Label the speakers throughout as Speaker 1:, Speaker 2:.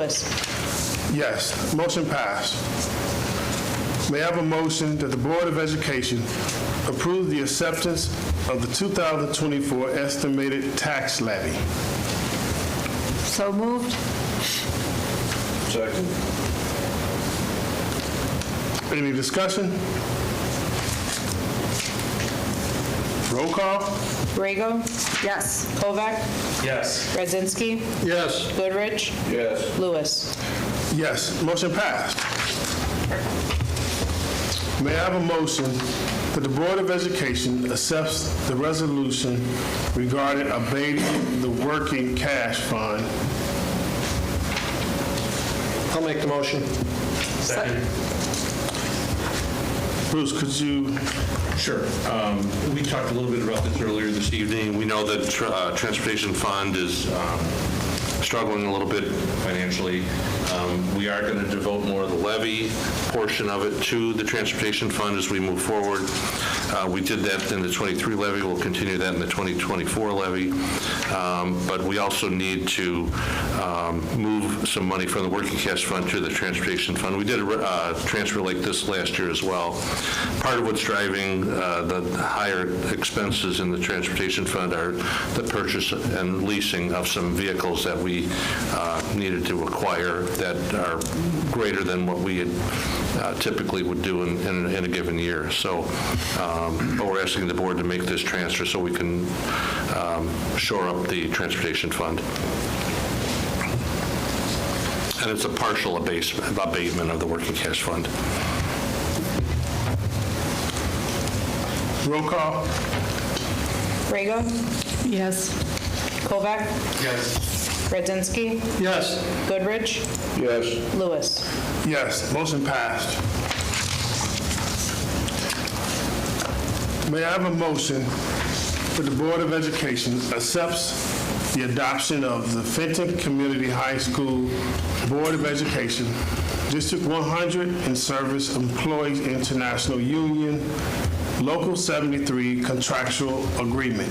Speaker 1: Lewis.
Speaker 2: Yes, motion passed. May I have a motion that the Board of Education approve the acceptance of the 2024 estimated tax levy?
Speaker 1: So moved.
Speaker 3: Second.
Speaker 2: Any discussion? Roll call?
Speaker 1: Rego? Yes. Kovac?
Speaker 3: Yes.
Speaker 1: Radzinski?
Speaker 2: Yes.
Speaker 1: Goodrich?
Speaker 3: Yes.
Speaker 1: Lewis.
Speaker 2: Yes, motion passed. May I have a motion that the Board of Education accepts the resolution regarding abating the working cash fund?
Speaker 4: I'll make the motion.
Speaker 3: Second.
Speaker 2: Bruce, could you
Speaker 5: Sure. Um, We talked a little bit about this earlier this evening. We know that tr- uh, Transportation Fund is um, struggling a little bit financially. Um, We are going to devote more of the levy portion of it to the Transportation Fund as we move forward. Uh, We did that in the '23 levy, we'll continue that in the 2024 levy. Um, But we also need to um, move some money from the Working Cash Fund to the Transportation Fund. We did a uh, transfer like this last year as well. Part of what's driving uh, the higher expenses in the Transportation Fund are the purchase and leasing of some vehicles that we uh, needed to acquire that are greater than what we had uh, typically would do in- in in a given year. So, um, but we're asking the board to make this transfer so we can um, shore up the Transportation Fund. And it's a partial abasement- abatement of the working cash fund.
Speaker 2: roll call?
Speaker 1: Rego? Yes. Kovac? Yes. Radzinski?
Speaker 4: Yes.
Speaker 1: Goodrich?
Speaker 3: Yes.
Speaker 1: Lewis.
Speaker 2: Yes, motion passed. May I have a motion that the Board of Education accepts the adoption of the Fenton Community High School Board of Education District 100 and Service Employees International Union Local 73 contractual agreement?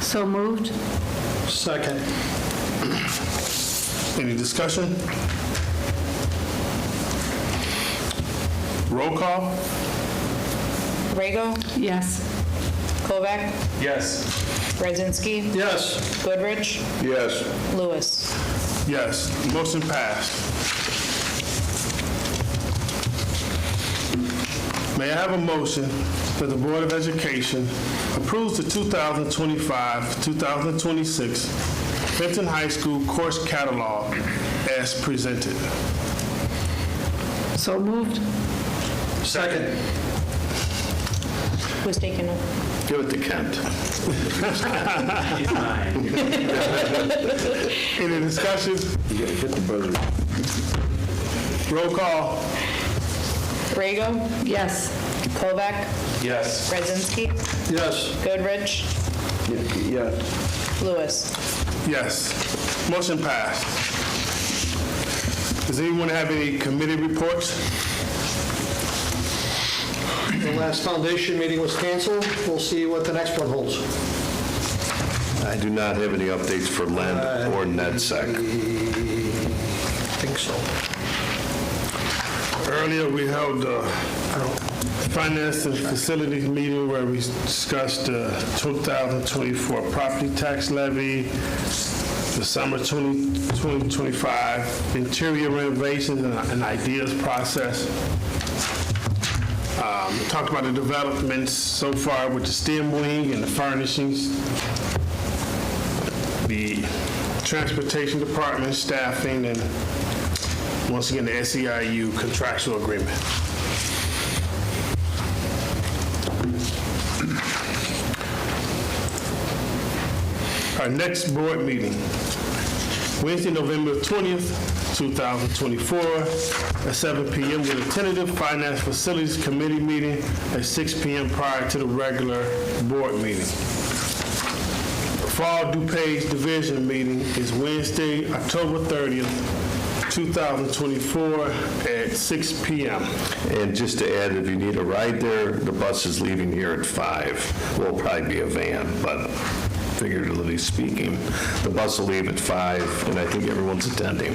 Speaker 1: So moved.
Speaker 4: Second.
Speaker 2: Any discussion? Roll call?
Speaker 1: Rego?
Speaker 6: Yes.
Speaker 1: Kovac?
Speaker 3: Yes.
Speaker 1: Radzinski?
Speaker 4: Yes.
Speaker 1: Goodrich?
Speaker 3: Yes.
Speaker 1: Lewis.
Speaker 2: Yes, motion passed. May I have a motion that the Board of Education approves the 2025-2026 Benton High School course catalog as presented?
Speaker 6: So moved?
Speaker 4: Second.
Speaker 1: Who's taking it?
Speaker 5: Give it to Kent.
Speaker 2: Any discussion?
Speaker 3: You gotta hit the buzzer.
Speaker 2: Roll call.
Speaker 1: Rego?
Speaker 6: Yes.
Speaker 1: Kovac?
Speaker 3: Yes.
Speaker 1: Radzinski?
Speaker 4: Yes.
Speaker 1: Goodrich?
Speaker 3: Yes.
Speaker 1: Lewis.
Speaker 2: Yes, motion passed. Does anyone have any committee reports?
Speaker 4: The last foundation meeting was canceled. We'll see what the next one holds.
Speaker 7: I do not have any updates for Len or NetSec.
Speaker 4: Think so.
Speaker 2: Earlier, we held a finance and facilities meeting where we discussed the 2024 property tax levy, the summer 20 2025 interior renovations and- and ideas process. Um, Talked about the developments so far with the STEM wing and the furnishings, the transportation department staffing, and once again, the SEIU contractual agreement. Our next board meeting, Wednesday, November 20th, 2024, at 7 p.m. with a tentative Finance Facilities Committee meeting at 6 p.m. prior to the regular board meeting. Fall DuPage Division meeting is Wednesday, October 30th, 2024, at 6 p.m.
Speaker 7: And just to add, if you need a ride there, the bus is leaving here at 5. Will probably be a van, but figuratively speaking, the bus will leave at 5, and I think everyone's attending.